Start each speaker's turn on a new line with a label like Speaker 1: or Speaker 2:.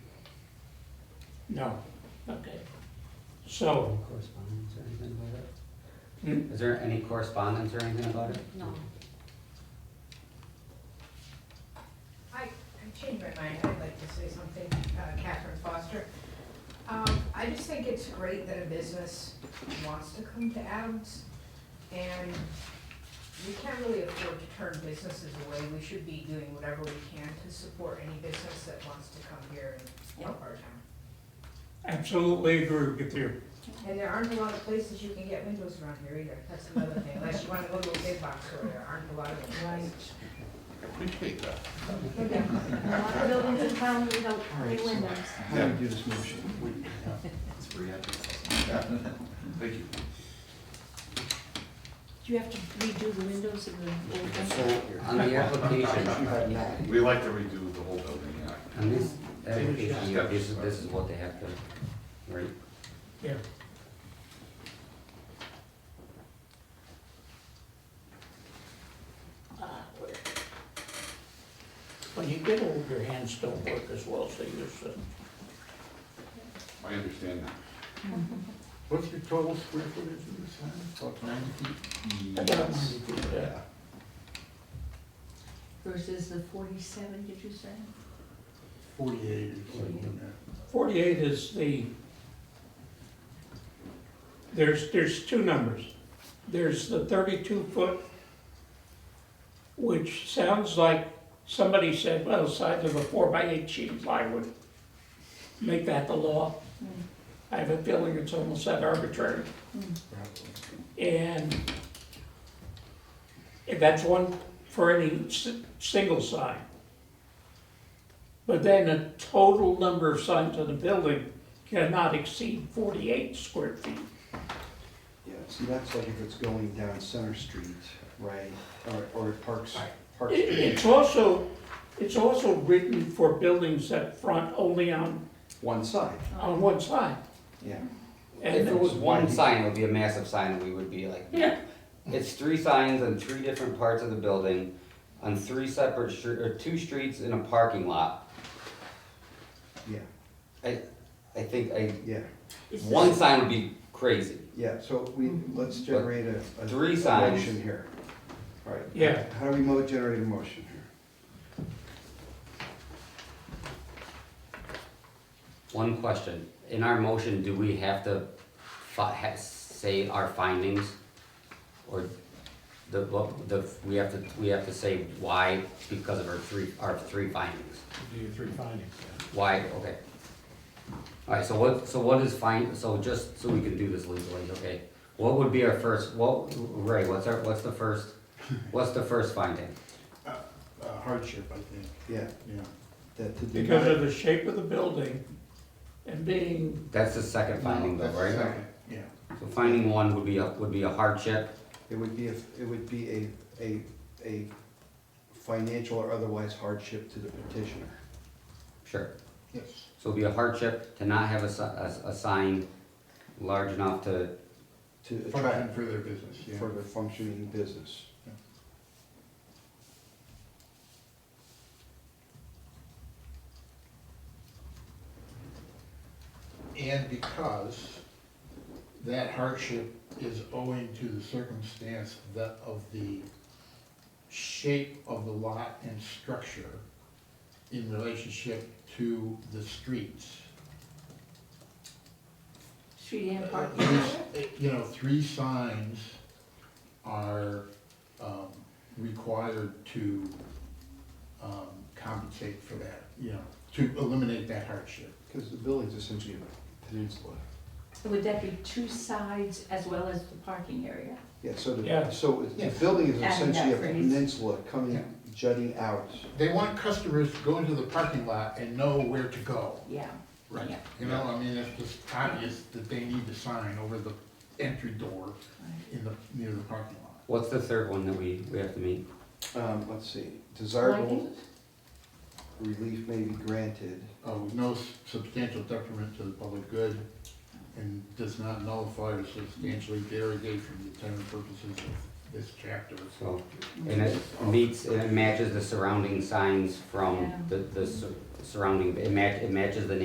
Speaker 1: No,
Speaker 2: Okay.
Speaker 1: so,
Speaker 3: Any correspondence or anything about it?
Speaker 1: hmm,
Speaker 3: Is there any correspondence or anything about it?
Speaker 4: No.
Speaker 5: I, I changed my mind, I'd like to say something, uh, Catherine Foster. Um, I just think it's great that a business wants to come to Adams, and we can't really afford to turn businesses away, we should be doing whatever we can to support any business that wants to come here and help our town.
Speaker 1: absolutely agree with you.
Speaker 5: And there aren't a lot of places you can get windows around here either, that's another thing, unless you wanna go to a big box store, there aren't a lot of windows.
Speaker 6: Appreciate that.
Speaker 4: A lot of buildings in town without any windows.
Speaker 6: How do we do this motion? It's free advertising. Thank you.
Speaker 2: Do you have to redo the windows of the old one?
Speaker 3: On the application,
Speaker 6: We like to redo the whole building, yeah.
Speaker 3: on this application, you- this is, this is what they have to, right?
Speaker 1: Yeah,
Speaker 2: Ah, where? When you get old, your hands don't work as well, so you're, uh, so-
Speaker 6: I understand that. What's your total square footage of this house? About ninety feet?
Speaker 2: About 90 feet, yeah.
Speaker 6: Yeah.
Speaker 7: Versus the forty-seven, did you say?
Speaker 6: Forty-eight or
Speaker 7: something like
Speaker 1: forty-eight is the, there's, there's two numbers. There's the thirty-two foot, which sounds like somebody said, well, the size of a four by eight sheet of plywood. Make that the law. I have a feeling it's almost that arbitrary. And that's one for any si- single sign. But then a total number of signs on the building cannot exceed forty-eight square feet.
Speaker 8: Yeah, see, that's like if it's going down Center Street, right, or, or Parks, Parks.
Speaker 1: It- It's also, it's also written for buildings that front only on,
Speaker 8: one side,
Speaker 1: on one side.
Speaker 8: yeah.
Speaker 1: And
Speaker 3: If
Speaker 1: there
Speaker 3: it was
Speaker 1: was,
Speaker 3: one sign, it would be a massive sign, and we would be like,
Speaker 1: yeah,
Speaker 3: It's three signs on three different parts of the building, on three separate stre or two streets in a parking lot.
Speaker 8: Yeah,
Speaker 3: I, I think I,
Speaker 8: yeah,
Speaker 7: Is this-
Speaker 3: one sign would be crazy.
Speaker 8: yeah, so we, let's generate a. a-
Speaker 3: Three
Speaker 8: a
Speaker 3: signs.
Speaker 8: Motion here. All right.
Speaker 1: Yeah.
Speaker 8: How do we mo, generate a motion here?
Speaker 3: One question, in our motion, do we have to fi- ha- say our findings? Or the, what, the, we have to, we have to say why because of our three, our three findings?
Speaker 9: Do your three findings, yeah.
Speaker 3: Why, okay. Alright, so what, so what is fine, so just so we can do this legally, okay? What would be our first, what, Ray, what's our, what's the first, what's the first finding?
Speaker 9: Uh, Hardship, I think,
Speaker 8: Yeah,
Speaker 9: yeah.
Speaker 8: that to deny.
Speaker 1: because of the shape of the building and being,
Speaker 3: That's the second finding though,
Speaker 6: That's the
Speaker 3: right?
Speaker 6: second.
Speaker 9: Yeah.
Speaker 3: So finding one would be a, would be a hardship,
Speaker 8: It would be, a it would be a, a, a financial or otherwise hardship to the petitioner.
Speaker 3: sure.
Speaker 6: Yes.
Speaker 3: So it'd be a hardship to not have a, si- a, a sign large enough to,
Speaker 8: To
Speaker 6: Function
Speaker 8: attract
Speaker 6: for their business, yeah.
Speaker 8: for the functioning business.
Speaker 9: And because that hardship is owing to the circumstance that of the shape of the lot and structure in relationship to the streets.
Speaker 7: Street and
Speaker 9: Uh,
Speaker 7: park.
Speaker 9: these, uh, You know, three signs are um, required to um, compensate for that, you know, to eliminate that hardship.
Speaker 8: Because the building's essentially a peninsula.
Speaker 7: Would that be two sides as well as the parking area?
Speaker 8: Yeah, so
Speaker 1: Yeah.
Speaker 8: the, so the
Speaker 9: Yeah.
Speaker 8: building
Speaker 7: Adding
Speaker 8: is
Speaker 7: that
Speaker 8: essentially a
Speaker 7: phrase.
Speaker 8: peninsula coming,
Speaker 9: Yeah.
Speaker 8: jutting out.
Speaker 9: They want customers to go into the parking lot and know where to go.
Speaker 7: Yeah. Yeah.
Speaker 9: You know, I mean, it's just obvious that they need the sign over the entry door in the, near the parking lot.
Speaker 3: what's the third one that we, we have to meet?
Speaker 8: Um, let's see, desirable
Speaker 7: Lighting?
Speaker 8: relief may be granted.
Speaker 9: uh, with no substantial detriment to the public good and does not nullify or substantially derogate from the intended purposes of this chapter.
Speaker 3: So, and it meets, and it matches the surrounding signs from
Speaker 7: Yeah.
Speaker 3: the, the sur- surrounding, it ma- it matches the